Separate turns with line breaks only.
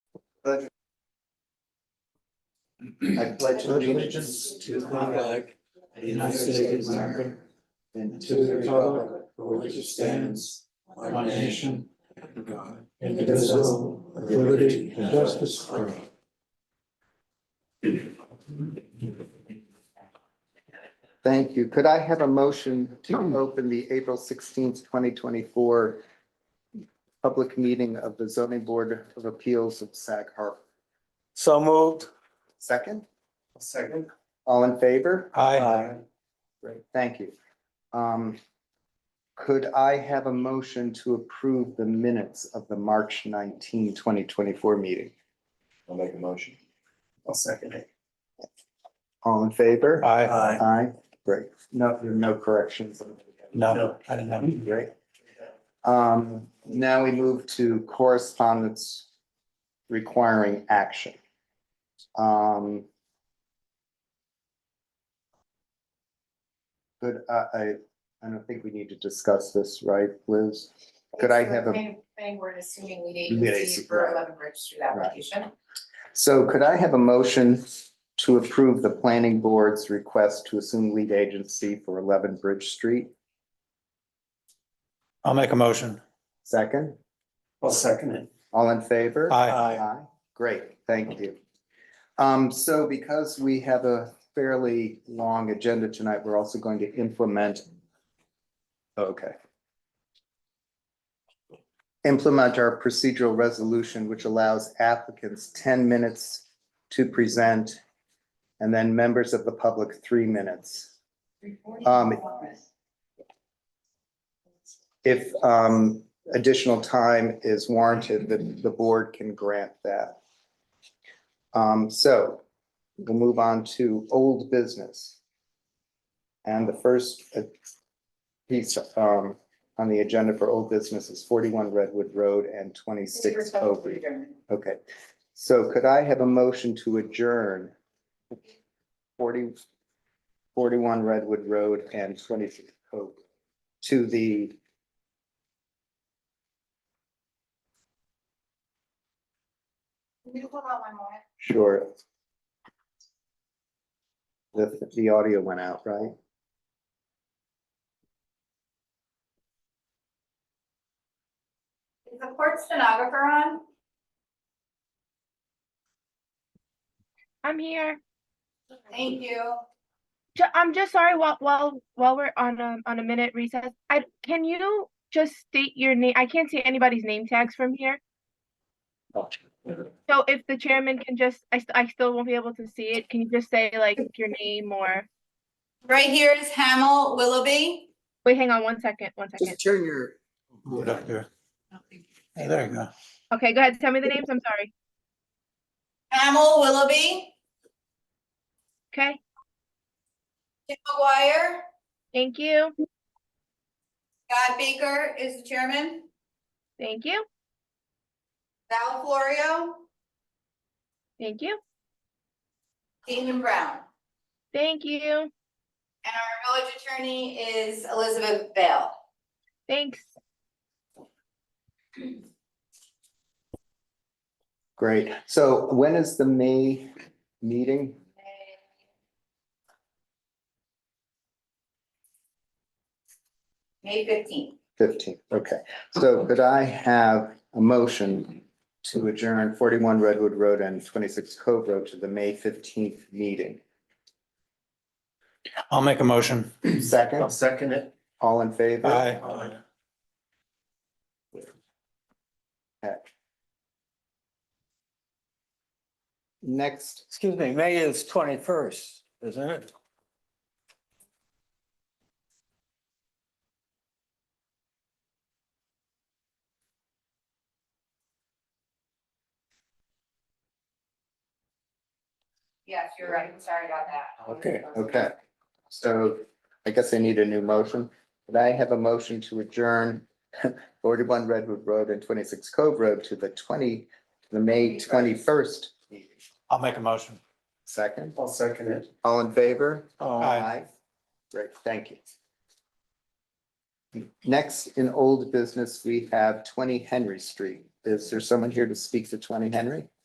I pledge allegiance to the flag of the United States of America and to the republic for which it stands, one nation, under God, indivisible, with liberty and justice for all.
Thank you. Could I have a motion to open the April sixteenth, twenty twenty-four public meeting of the zoning board of appeals of Sag Harbor?
So moved.
Second,
Second.
all in favor?
Aye.
Great, thank you. Um, could I have a motion to approve the minutes of the March 19, 2024 meeting?
I'll make a motion. I'll second it.
All in favor?
Aye.
Aye, great. No, there are no corrections.
No, I didn't know.
Great. Um, now we move to correspondence requiring action. Um. Good, I, uh, I, I don't think we need to discuss this, right, Liz? Could I have a-
Thing, we're assuming lead
Lead
agency
agency,
for
right. Um,
eleven Bridge Street application.
So could I have a motion to approve the planning board's request to assume lead agency for eleven Bridge Street?
I'll make a motion.
Second,
I'll second it.
all in favor?
Aye.
Aye. Great, thank you. Um, so because we have a fairly long agenda tonight, we're also going to implement. Okay. Implement our procedural resolution, which allows applicants ten minutes to present. And then members of the public, three minutes. Um, If um additional time is warranted, the the board can grant that. Um, so we'll move on to old business. And the first uh, piece um on the agenda for old business is forty-one Redwood Road and twenty-six Oak. Ridge. Okay, so could I have a motion to adjourn 40 41 Redwood Road and twenty-six Oak to the
Can you hold on one moment?
Sure. The, the audio went out, right?
Is the court stenographer on?
I'm here.
Thank you.
Ju- I'm just sorry while while while we're on a on a minute recess. I can you just state your name? I can't see anybody's name tags from here. So if the chairman can just, I st- I still won't be able to see it. Can you just say like your name or?
Right here is Hamel Willoughby.
Wait, hang on one second, one second.
turn your.
Put up your- Hey, there you go.
Okay, go ahead. Tell me the names. I'm sorry.
Hamel Willoughby,
Okay,
Tim McGuire,
thank you,
Scott Baker is the chairman,
thank you,
Val Florio,
thank you,
Damon Brown.
thank you.
And our village attorney is Elizabeth Bale.
Thanks.
Great. So when is the May meeting?
May fifteenth.
Fifteen, okay. So could I have a motion to adjourn forty-one Redwood Road and twenty-six Cove Road to the May fifteenth meeting?
I'll make a motion.
I'll
Second,
second it.
all in favor?
Aye.
Next,
Excuse me, May is twenty-first, isn't it?
Yes, you're right. Sorry about that.
Okay.
okay. So I guess I need a new motion. Could I have a motion to adjourn forty-one Redwood Road and twenty-six Cove Road to the twenty, the May twenty-first?
I'll make a motion.
Second,
I'll second it.
all in favor?
Oh,
Aye.
Great, thank you. Next, in old business, we have twenty Henry Street. Is there someone here to speak to twenty Henry?